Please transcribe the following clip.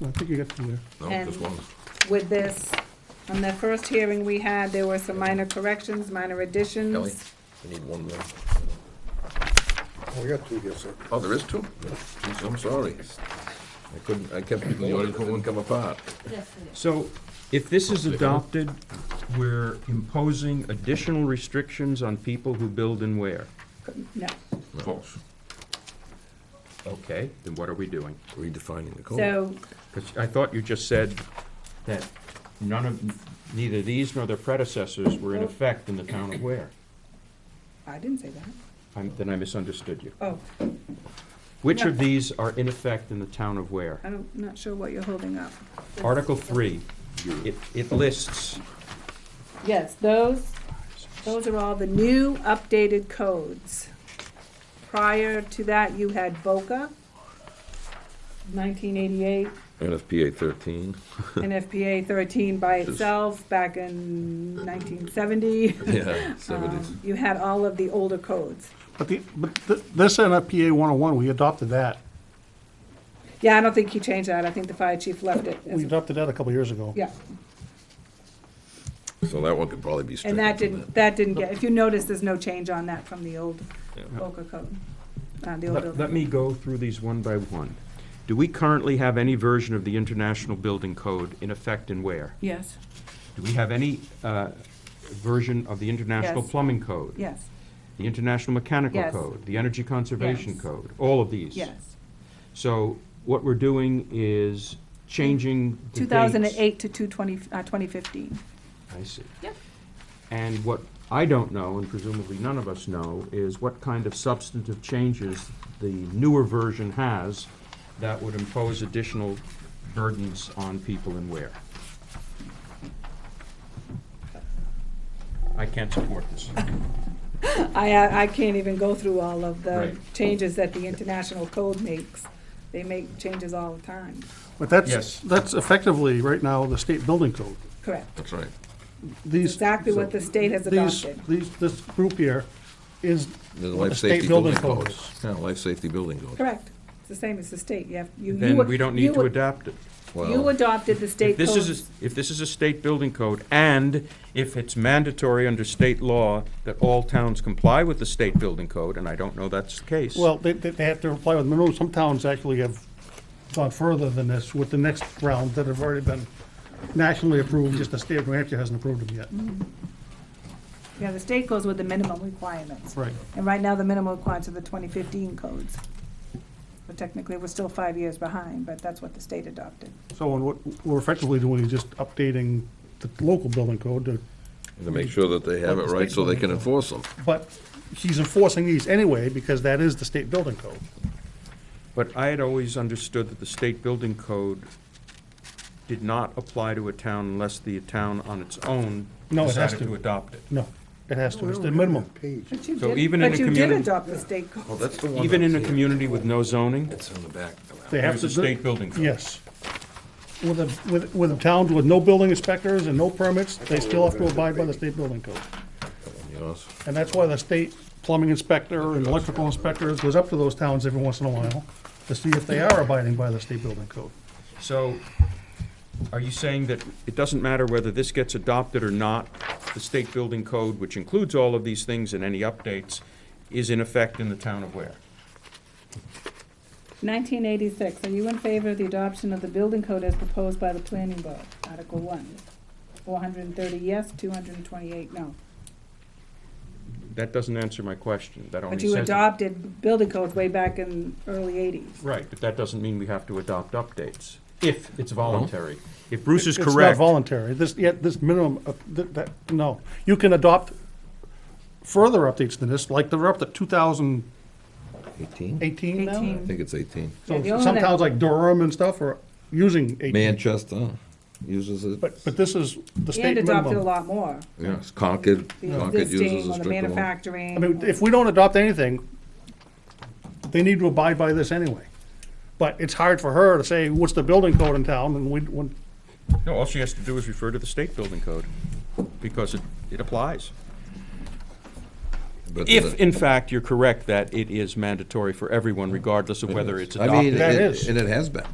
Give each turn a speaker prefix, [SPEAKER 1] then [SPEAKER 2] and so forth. [SPEAKER 1] No, I think you got uh, through there.
[SPEAKER 2] No,
[SPEAKER 3] And-
[SPEAKER 2] just one.
[SPEAKER 3] with this. On the first hearing we had, there were some minor corrections, minor
[SPEAKER 2] Kelly,
[SPEAKER 3] additions.
[SPEAKER 2] we need one more.
[SPEAKER 4] We got two here, sir.
[SPEAKER 2] Oh, there is two? Jeez, I'm sorry. I couldn't, I kept reading the ordinance, it wouldn't come apart.
[SPEAKER 5] So if this is adopted, we're imposing additional restrictions on people who build and wear.
[SPEAKER 3] No.
[SPEAKER 2] False.
[SPEAKER 5] Okay, then what are we doing?
[SPEAKER 2] Redefining the code.
[SPEAKER 3] So,
[SPEAKER 5] Because I thought you just said that none of, neither these nor their predecessors were in effect in the town of Ware.
[SPEAKER 3] I didn't say that.
[SPEAKER 5] I'm- Then I misunderstood you.
[SPEAKER 3] Oh,
[SPEAKER 5] Which of these are in effect in the town of Ware?
[SPEAKER 3] I'm not sure what you're holding up.
[SPEAKER 5] Article three, it, it lists,
[SPEAKER 3] Yes, those, those are all the new updated codes. Prior to that, you had BOCA, 1988,
[SPEAKER 2] NFPA thirteen.
[SPEAKER 3] NFPA 13 by itself back in 1970.
[SPEAKER 2] Yeah, seventies.
[SPEAKER 3] Um, You had all of the older codes.
[SPEAKER 1] But the, but th- this NFPA 101, we adopted that.
[SPEAKER 3] Yeah, I don't think he changed that. I think the fire chief left it. as
[SPEAKER 1] We
[SPEAKER 3] a-
[SPEAKER 1] adopted that a couple years ago.
[SPEAKER 3] Yeah,
[SPEAKER 2] So that one could probably be
[SPEAKER 3] and
[SPEAKER 2] stricken.
[SPEAKER 3] that
[SPEAKER 2] from
[SPEAKER 3] didn't, that didn't get, if you notice, there's no change on that from the old
[SPEAKER 2] Yeah.
[SPEAKER 3] Boca code. uh, the old
[SPEAKER 5] let, let
[SPEAKER 3] building.
[SPEAKER 5] me go through these one by one. Do we currently have any version of the International Building Code in effect in Ware?
[SPEAKER 3] Yes,
[SPEAKER 5] Do we have any uh, version of the International
[SPEAKER 3] Yes.
[SPEAKER 5] Plumbing Code?
[SPEAKER 3] yes,
[SPEAKER 5] The International Mechanical
[SPEAKER 3] Yes.
[SPEAKER 5] Code? The Energy Conservation
[SPEAKER 3] Yes.
[SPEAKER 5] Code? All of these?
[SPEAKER 3] yes.
[SPEAKER 5] So what we're doing is changing the dates.
[SPEAKER 3] 2008 to 220, uh, 2015.
[SPEAKER 5] I see.
[SPEAKER 3] Yep.
[SPEAKER 5] And what I don't know, and presumably none of us know, is what kind of substantive changes the newer version has that would impose additional burdens on people and where. I can't support this.
[SPEAKER 3] I, uh, I I can't even go through all of the
[SPEAKER 5] Right.
[SPEAKER 3] changes that the international code makes. They make changes all the time,
[SPEAKER 1] But
[SPEAKER 5] Yes.
[SPEAKER 1] that's, that's effectively, right now, the state building code.
[SPEAKER 3] correct.
[SPEAKER 2] That's right.
[SPEAKER 1] These.
[SPEAKER 3] Exactly what the state has
[SPEAKER 1] These,
[SPEAKER 3] adopted.
[SPEAKER 1] these, this group here is
[SPEAKER 2] The
[SPEAKER 1] what
[SPEAKER 2] life
[SPEAKER 1] the state
[SPEAKER 2] safety
[SPEAKER 1] building
[SPEAKER 2] building
[SPEAKER 1] code
[SPEAKER 2] code.
[SPEAKER 1] is.
[SPEAKER 2] Yeah, life safety building code.
[SPEAKER 3] Correct. It's the same as the state. You have, you. you
[SPEAKER 5] Then
[SPEAKER 3] would-
[SPEAKER 5] we don't
[SPEAKER 3] you
[SPEAKER 5] need to
[SPEAKER 3] would-
[SPEAKER 5] adapt it.
[SPEAKER 3] You
[SPEAKER 2] Well,
[SPEAKER 3] adopted the
[SPEAKER 5] If
[SPEAKER 3] state
[SPEAKER 5] this
[SPEAKER 3] code.
[SPEAKER 5] is, a- if this is a state building code, and if it's mandatory under state law that all towns comply with the state building code, and I don't know that's the case.
[SPEAKER 1] Well, they, they they have to apply with minimum, some towns actually have gone further than this with the next round that have already been nationally approved, just the state of New Hampshire hasn't approved them
[SPEAKER 3] Mm-hmm.
[SPEAKER 1] yet.
[SPEAKER 3] Yeah, the state goes with the minimum requirements.
[SPEAKER 1] Right.
[SPEAKER 3] And right now, the minimum requirements are the 2015 codes. But technically, we're still five years behind, but that's what the state adopted.
[SPEAKER 1] So and what we're effectively doing is just updating the local building code, to-
[SPEAKER 2] to make sure that they have it right so they can enforce them.
[SPEAKER 1] but he's enforcing these anyway because that is the state building code.
[SPEAKER 5] But I had always understood that the state building code did not apply to a town unless the town on its own
[SPEAKER 1] No, it has
[SPEAKER 5] decided
[SPEAKER 1] to.
[SPEAKER 5] to adopt it.
[SPEAKER 1] No, it has to, it's the minimum.
[SPEAKER 4] Page.
[SPEAKER 3] But you
[SPEAKER 5] So
[SPEAKER 3] did-
[SPEAKER 5] even in a
[SPEAKER 3] But you did
[SPEAKER 5] communi-
[SPEAKER 3] adopt the state
[SPEAKER 2] Oh,
[SPEAKER 3] code.
[SPEAKER 2] that's the one.
[SPEAKER 5] Even in a
[SPEAKER 2] that's here.
[SPEAKER 5] community with no zoning,
[SPEAKER 2] It's on the back.
[SPEAKER 1] They have
[SPEAKER 5] there's
[SPEAKER 1] to.
[SPEAKER 5] a state building code.
[SPEAKER 1] Yes. With a, with, with a town with no building inspectors and no permits, they still have to abide by the state building code.
[SPEAKER 2] Yours.
[SPEAKER 1] And that's why the state plumbing inspector and electrical inspectors goes up to those towns every once in a while to see if they are abiding by the state building code.
[SPEAKER 5] So are you saying that it doesn't matter whether this gets adopted or not, the state building code, which includes all of these things and any updates, is in effect in the town of Ware?
[SPEAKER 3] 1986, are you in favor of the adoption of the building code as proposed by the planning board? Article 1. 430 yes, 228 no.
[SPEAKER 5] That doesn't answer my question. That only
[SPEAKER 3] But
[SPEAKER 5] says.
[SPEAKER 3] you adopted building codes way back in early 80s.
[SPEAKER 5] Right, but that doesn't mean we have to adopt updates, if it's voluntary. If Bruce is
[SPEAKER 1] It's not
[SPEAKER 5] correct,
[SPEAKER 1] voluntary. This, yet, this minimum, of- th- that, no. You can adopt further updates than this, like they're up to two thousand
[SPEAKER 2] Eighteen?
[SPEAKER 1] eighteen now?
[SPEAKER 3] 18.
[SPEAKER 2] I think it's eighteen.
[SPEAKER 3] Yeah, the
[SPEAKER 1] So
[SPEAKER 3] only
[SPEAKER 1] some
[SPEAKER 3] thing-
[SPEAKER 1] towns like Durham and stuff are using eighteen.
[SPEAKER 2] Manchester uses it.
[SPEAKER 1] But, but this is the state
[SPEAKER 3] And adopted a
[SPEAKER 1] minimum.
[SPEAKER 3] lot more.
[SPEAKER 2] Yes, Concord,
[SPEAKER 3] The
[SPEAKER 2] Concord uses
[SPEAKER 3] existing
[SPEAKER 2] a
[SPEAKER 3] or the
[SPEAKER 2] stricter one.
[SPEAKER 3] manufacturing.
[SPEAKER 1] I mean,
[SPEAKER 3] or-
[SPEAKER 1] if we don't adopt anything, they need to abide by this anyway. But it's hard for her to say, what's the building code in town, and we, when,
[SPEAKER 5] no, all she has to do is refer to the state building code, because it, it applies.
[SPEAKER 2] But
[SPEAKER 5] If,
[SPEAKER 2] the-
[SPEAKER 5] in fact, you're correct that it is mandatory for everyone, regardless of whether it's
[SPEAKER 2] I mean,
[SPEAKER 5] adopted.
[SPEAKER 1] That
[SPEAKER 2] it-
[SPEAKER 1] is.
[SPEAKER 2] and it has been.